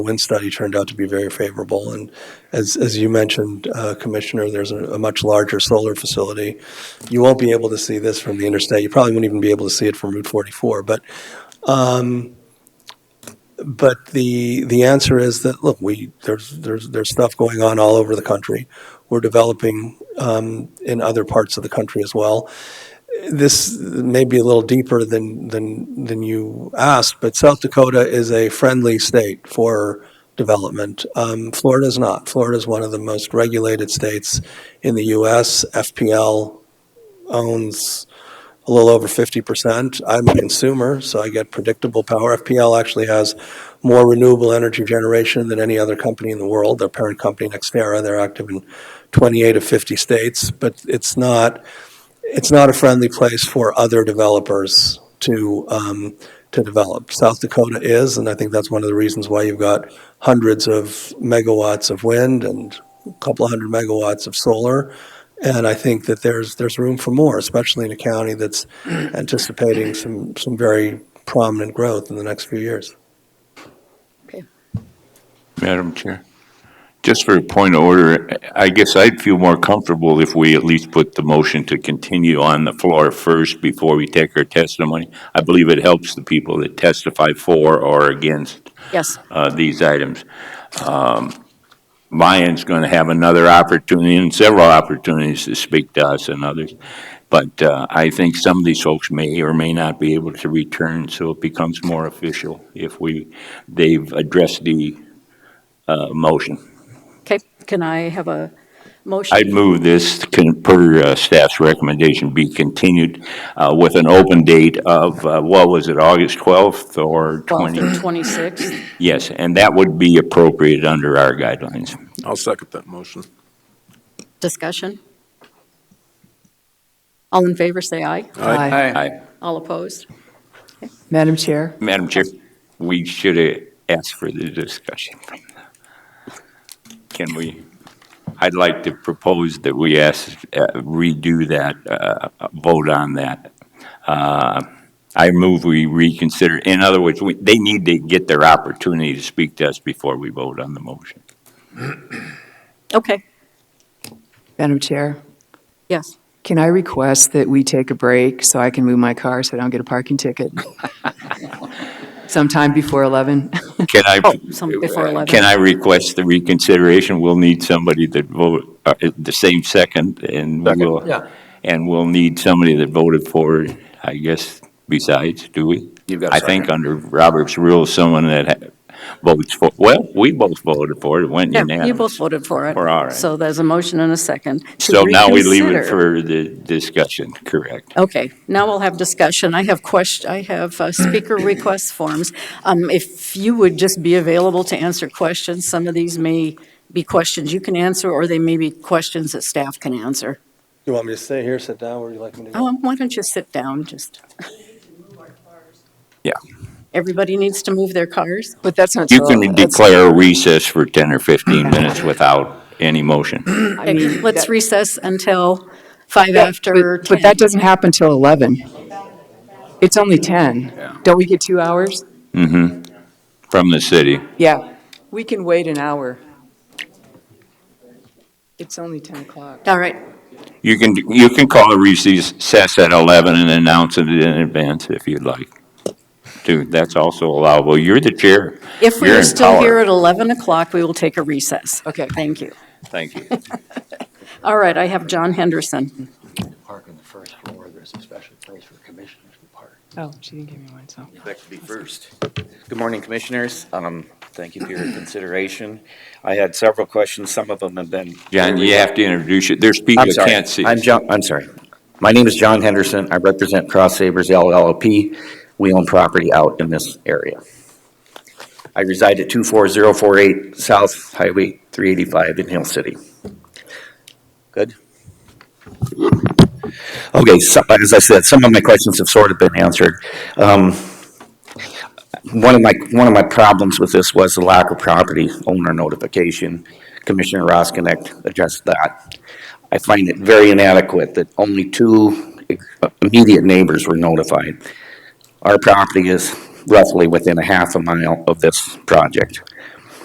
wind study turned out to be very favorable. And as, as you mentioned, uh, Commissioner, there's a, a much larger solar facility. You won't be able to see this from the interstate. You probably wouldn't even be able to see it from Route 44. But, um, but the, the answer is that, look, we, there's, there's, there's stuff going on all over the country. We're developing um, in other parts of the country as well this may be a little deeper than, than, than you asked, but South Dakota is a friendly state for development. Um, Florida is not. Florida is one of the most regulated states in the U.S. FPL owns a little over 50%. I'm a consumer, so I get predictable power. FPL actually has more renewable energy generation than any other company in the world. Their parent company, Nextera, they're active in 28 of 50 states, but it's not it's not a friendly place for other developers to, um, to develop. South Dakota is, and I think that's one of the reasons why you've got hundreds of megawatts of wind and a couple of hundred megawatts of solar. And I think that there's, there's room for more, especially in a county that's anticipating some, some very prominent growth in the next few years. Madam Chair, just for a point of order, I guess I'd feel more comfortable if we at least put the motion to continue on the floor first before we take our testimony. I believe it helps the people that testify for or against Yes, uh, these items. Um, Mayan's going to have another opportunity and several opportunities to speak to us and others. But uh, I think some of these folks may or may not be able to return, so it becomes more official if we, they've addressed the uh, motion. okay. Can I have a motion? I'd move this, con- per uh, staff's recommendation, be continued uh, with an open date of, uh, what was it, August 12th or 12th 20? or 26th? Yes, and that would be appropriate under our guidelines. I'll second that motion. Discussion? All in favor, say aye. Aye. Aye. All opposed? Madam Chair, Madam Chair, we should have asked for the discussion. from the- Can we, I'd like to propose that we ask, uh, redo that, uh, vote on that. Uh, I move we reconsider, in other words, we- they need to get their opportunity to speak to us before we vote on the motion. Okay, Madam Chair, yes. can I request that we take a break so I can move my car so I don't get a parking ticket? Sometime before 11? Can I, Oh, some before 11. Uh, can I request the reconsideration? We'll need somebody that vote, uh, the same second, and we'll, yeah. and we'll need somebody that voted for, it, I guess, besides, do we? You've got a I think under Robert's rules, someone that ha- votes for, well, we both voted for it, it went Yeah, unanimous. you both voted for it. We're all right. So there's a motion and a second. to So now we leave it reconsider. for the discussion, correct? Okay, now we'll have discussion. I have question, I have uh, speaker request forms. Um, If you would just be available to answer questions, some of these may be questions you can answer, or they may be questions that staff can answer. You want me to stay here, sit down, where do you like me to go? Um, Why don't you sit down, just, Yeah. everybody needs to move their cars? But that's not. You till- can that's- declare a recess for 10 or 15 minutes without any motion. I Okay, mean, let's that- recess until five Yeah, after but- 10. But that doesn't happen till 11. It's only 10. Don't we get two hours? Mm-hmm. from the city. Yeah, we can wait an hour. It's only 10 o'clock. All right, You can, you can call a recess at 11 and announce it in advance if you'd like. Dude, that's also allowable. You're the chair. if we You're are in still power. here at 11 o'clock, we will take a recess. Okay. Thank you. Thank you. All right, I have John Henderson. park on the first floor, there's a special place for commissioners to park. Oh, she didn't give me one, so. That could be first. Good morning, Commissioners. Um, Thank you for your consideration. I had several questions, some of them have been. John, you have to introduce you. There's people I'm that sorry. can't see. I'm John, I'm sorry. My name is John Henderson. I represent Cross Sabers LLP. We own property out in this area. I reside at 24048 South Highway 385 in Hill City. Good? Okay, so, as I said, some of my questions have sort of been answered. Um, one of my, one of my problems with this was the lack of property owner notification. Commissioner Roskinek addressed that. I find it very inadequate that only two immediate neighbors were notified. Our property is roughly within a half a mile of this project.